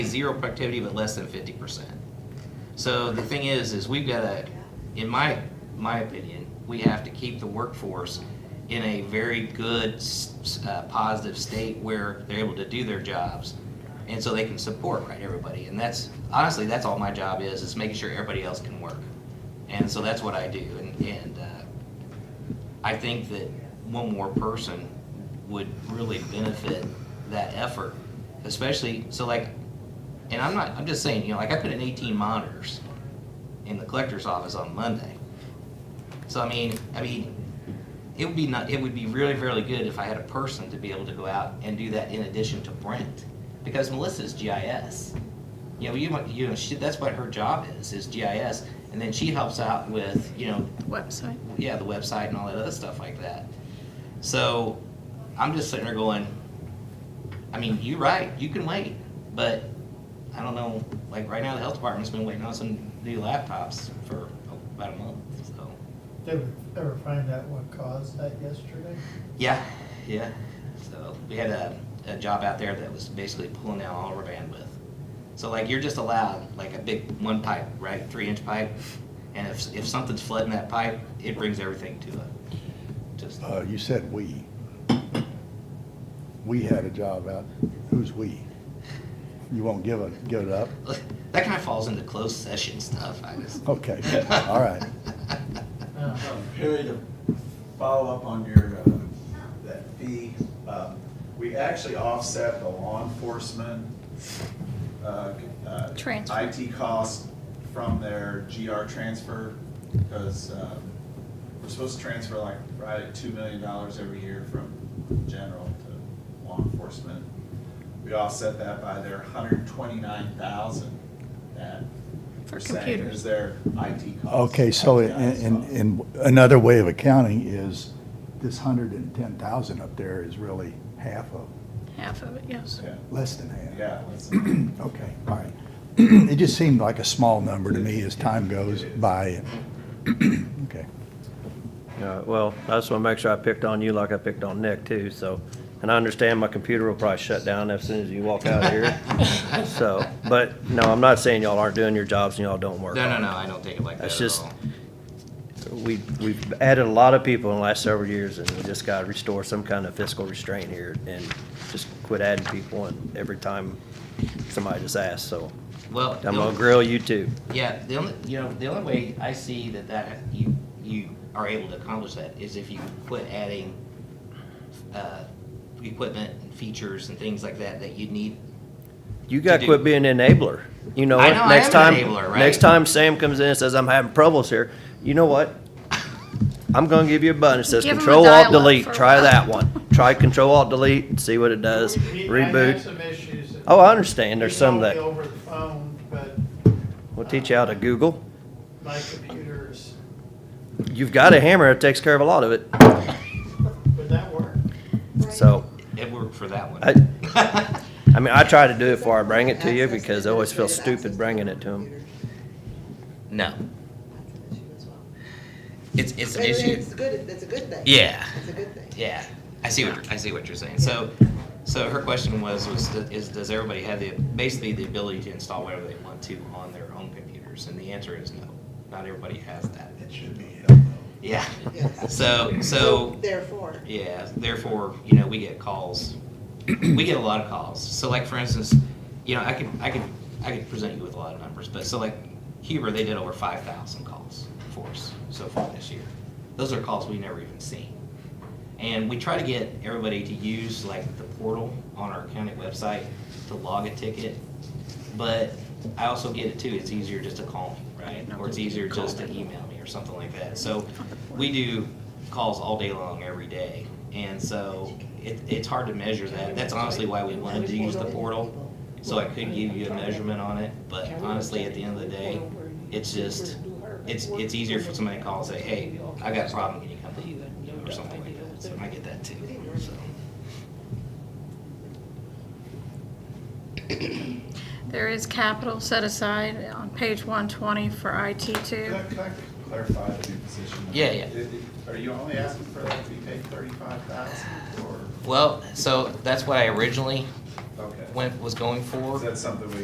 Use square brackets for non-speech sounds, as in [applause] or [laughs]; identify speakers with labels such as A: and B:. A: zero productivity, but less than fifty percent. So the thing is, is we've got to, in my, my opinion, we have to keep the workforce in a very good, s- uh, positive state where they're able to do their jobs. And so they can support, right, everybody. And that's, honestly, that's all my job is, is making sure everybody else can work. And so that's what I do. And, and, uh, I think that one more person would really benefit that effort, especially, so like, and I'm not, I'm just saying, you know, like I put in 18 monitors in the collector's office on Monday. So I mean, I mean, it would be not, it would be really, really good if I had a person to be able to go out and do that in addition to Brent. Because Melissa's GIS. You know, you, might- you know, she, that's what her job is, is GIS. And then she helps out with, you know,
B: website.
A: yeah, the website and all that other stuff like that. So I'm just sitting there going, I mean, you're right, you can wait, but I don't know, like right now, the health department's been waiting on some new laptops for about a month, so.
C: Did we ever find out what caused that yesterday?
A: Yeah, yeah. So we had a, a job out there that was basically pulling down all of our bandwidth. So like you're just allowed like a big one pipe, right, three inch pipe, and if if something's flooding that pipe, it brings everything to a just
D: Uh, you said we. We had a job out, who's we? You won't give it, give it up?
A: that kind of falls into closed session stuff. I just
D: Okay, all
A: [laughs]
D: right.
C: [laughs] No.
E: Perry, to follow up on your, uh, that fee, um, we actually offset the law enforcement, uh, uh,
B: Transfer.
E: IT cost from their GR transfer, because we're supposed to transfer like right at $2 million every year from general to law enforcement. We offset that by their 129,000 that
B: For
E: we're saying
B: computers.
E: is their IT cost.
D: Okay, so in,
E: IT
D: in,
E: cost.
D: in another way of accounting is this hundred and ten thousand up there is really half of,
B: Half of it, yes.
E: Yeah.
D: less than half.
E: Yeah, let's-
D: Okay, all right. It just seemed like a small number to me as time goes by. [clears throat] Okay.
F: All right, well, I just want to make sure I picked on you like I picked on Nick too, so, and I understand my computer will probably shut down as soon as you walk out
A: [laughs]
F: of here. So, but no, I'm not saying y'all aren't doing your jobs and y'all don't work.
A: no, no, no. I don't take it like that
F: That's
A: at
F: just-
A: all.
F: We, we've added a lot of people in the last several years and we just got to restore some kind of fiscal restraint here and just quit adding people and every time somebody just asks, so.
A: Well,
F: I'm
A: the
F: gonna
A: only-
F: grill you too.
A: Yeah, the only you know the only way I see that that you you are able to accomplish that is if you quit adding uh, equipment and features and things like that that you need.
F: You got
A: do.
F: to quit being an enabler. You know,
A: I
F: what?
A: know I
F: next
A: am
F: time,
A: an enabler, right?
F: next time Sam comes in and says, I'm having problems here, you know what? I'm going to give you a button that says
B: Give him a
F: Control Alt
B: dial-up
F: Delete.
B: for a
F: Try
B: while.
F: that one. Try Control Alt Delete and see what it does.
C: I had
F: Reboot.
C: some issues. that
F: Oh, I understand. There's
C: you
F: some
C: told me
F: that
C: Over the phone, but
F: will teach you how to Google.
C: my computer's,
F: You've got a hammer. It takes care of a lot of it.
C: would that work?
F: So,
A: It worked for that one.
F: I, I mean, I try to do it before I bring it to you because I always feel stupid bringing it to them.
A: [laughs] no,
G: That's an issue as well.
A: it's it's an
G: But
A: issue.
G: It's good, it's a good thing.
A: Yeah.
G: It's a good thing.
A: Yeah, I see what you're, I see what you're saying. So, so her question was was do- is does everybody have the basically the ability to install whatever they want to on their own computers? And the answer is no. Not everybody has that.
E: It should be held though.
A: Yeah.
G: Yes.
A: So so
G: Therefore,
A: yeah. Therefore, you know, we get calls. we get a lot of calls. So like for instance, you know, I could I could I could present you with a lot of numbers, but so like Huber, they did over five thousand calls for us so far this year. Those are calls we never even seen. And we try to get everybody to use like the portal on our county website to log a ticket. But I also get it too, it's easier just to call me, right? Or it's easier just to email me or something like that. So we do calls all day long, every day. And so it, it's hard to measure that. That's honestly why we wanted to use the portal. So I could give you a measurement on it, but honestly, at the end of the day, it's just, it's, it's easier for somebody to call and say, hey, I got a problem, can you come to you? Or something like that. So I get that too, so.
B: There is capital set aside on page one twenty for IT
E: Can
B: too.
E: I, can I clarify the new position?
A: Yeah, yeah.
E: It- it- Are you only asking for that to be paid thirty-five thousand or,
A: Well, so that's what I originally
E: okay,
A: went, was going for.
E: is that something we